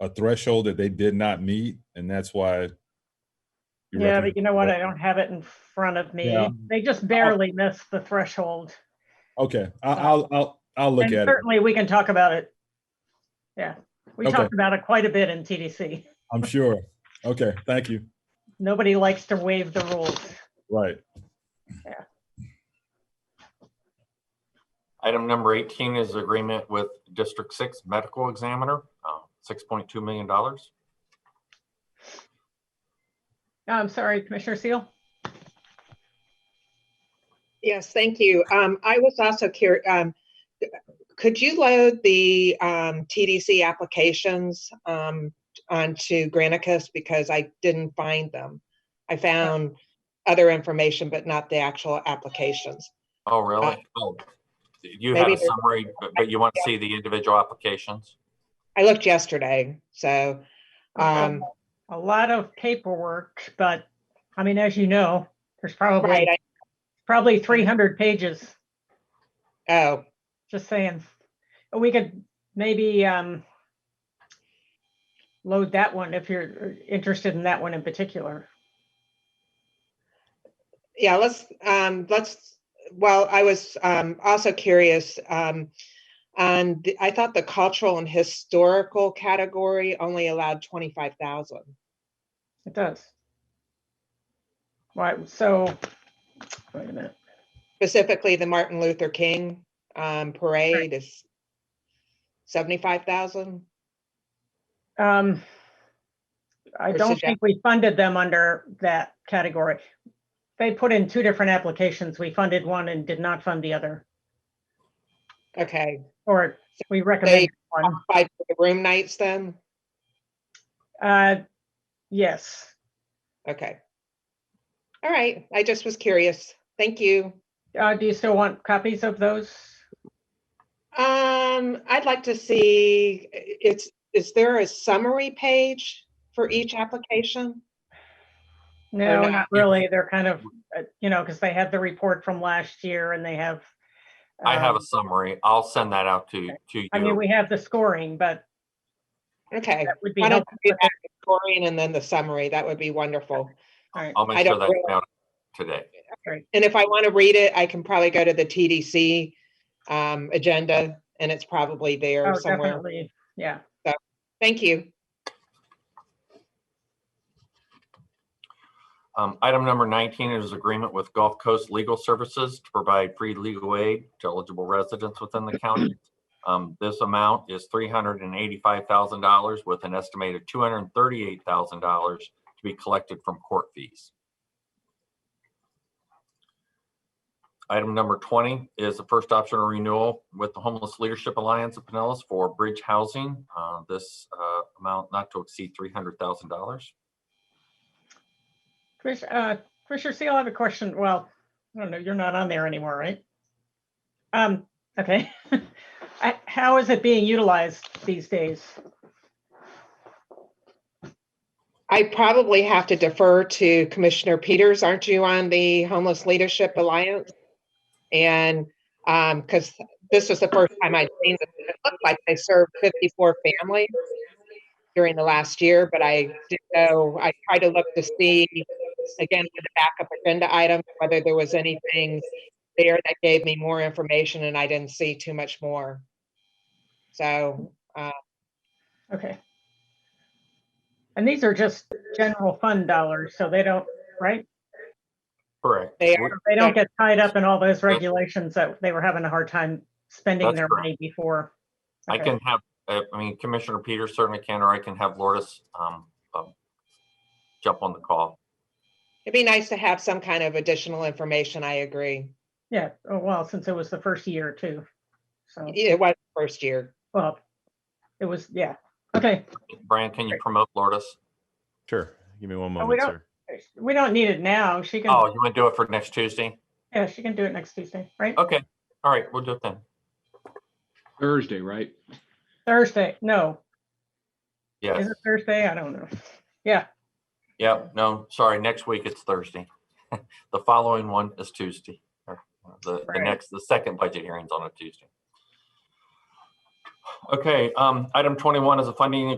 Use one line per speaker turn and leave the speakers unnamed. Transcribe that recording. a threshold that they did not meet, and that's why. you
Yeah,
recommend-
but you know what? I don't have it in front of me.
Yeah.
They just barely missed the threshold.
Okay, I- I'll, I'll, I'll look
And
at it.
Certainly, we can talk about it. Yeah, we
Okay.
talked about it quite a bit in TDC.
I'm sure. Okay, thank you.
Nobody likes to waive the rules.
Right.
Item number 18 is agreement with District 6 Medical Examiner, uh, $6.2 million.
I'm sorry, Commissioner Seal.
Yes, thank you. Um, I was also curious, um, could you load the, um, TDC applications, um, onto Granicus because I didn't find them. I found other information, but not the actual applications.
Oh, really? Oh, You had a
Maybe there's-
summary, but- but you want to see the individual applications?
I looked yesterday, so, um,
A lot of paperwork, but I mean, as you know, there's
right,
probably,
I-
probably 300 pages.
oh,
Just saying, we could maybe um load that one if you're interested in that one in particular.
yeah, let's, um, let's, well, I was, um, also curious, um, on the I thought the cultural and historical category only allowed twenty-five thousand.
It does. Right, so, wait a minute.
specifically the Martin Luther King um, parade is seventy-five thousand.
Um I
Or
don't
suggest-
think we funded them under that category. They put in two different applications. We funded one and did not fund the other,
Okay,
or we recommended one.
five room nights then.
Uh Yes,
Okay. All right. I just was curious. Thank you.
Uh do you still want copies of those?
Um, I'd like to see. It's is there a summary page for each application?
No,
not?
not really. They're kind of, uh, you know, because they have the report from last year and they have.
I have a
um,
summary. I'll send that out to, to
I mean,
you.
we have the scoring, but
Okay.
that would be
Why don't
helpful.
you do that, Victorian, and then the summary? That would be wonderful.
All right.
I'll make
I
sure
don't
that's
really-
out today.
And if I want to read it, I can probably go to the TDC um, agenda and it's probably
Oh,
there somewhere.
definitely. Yeah.
Thank you.
Um, Item number 19 is agreement with Gulf Coast Legal Services to provide free legal aid to eligible residents within the county. Um, This amount is $385,000 with an estimated $238,000 to be collected from court fees. Item number 20 is the first option of renewal with the Homeless Leadership Alliance of Pinellas for bridge housing. Uh, This uh, amount not to exceed $300,000.
Commissioner, uh, Commissioner Seal, I have a question. Well, I don't know, you're not on there anymore, right? Um, okay. I- How is it being utilized these days?
I probably have to defer to Commissioner Peters. Aren't you on the Homeless Leadership Alliance? And because this was the first time I'd seen this, it looked like they served 54 families during the last year, but I didn't know, I tried to look to see again with the backup agenda item, whether there was anything there that gave me more information and I didn't see too much more. So
Okay. And these are just general fund dollars, so they don't, right?
Correct.
they
We-
are,
They don't
Yeah.
get tied up in all those regulations that they were having a hard time spending
That's
their
correct.
money before.
I
Okay.
can have, uh, I mean, Commissioner Peters certainly can, or I can have Lourdes um, um, jump on the call.
it'd be nice to have some kind of additional information. I agree.
Yeah, oh, well, since it was the first year too. So,
Yeah, It was the first year.
well, it was, yeah, okay.
Brian, can you promote Lourdes?
Sure. Give me one
Oh,
moment,
we don't-
sir.
We don't need it now. She
Oh,
can,
you want to do it for next Tuesday?
yeah, she can do it next Tuesday, right?
Okay, all right, we'll do it then.
Thursday, right?
Thursday, no,
Yes,
is it Thursday? I don't know. Yeah,
yeah, no, sorry, next week it's Thursday. The following one is Tuesday. or uh, The, the
Right.
next, the second budget hearing's on a Tuesday. Okay, um, item 21 is a funding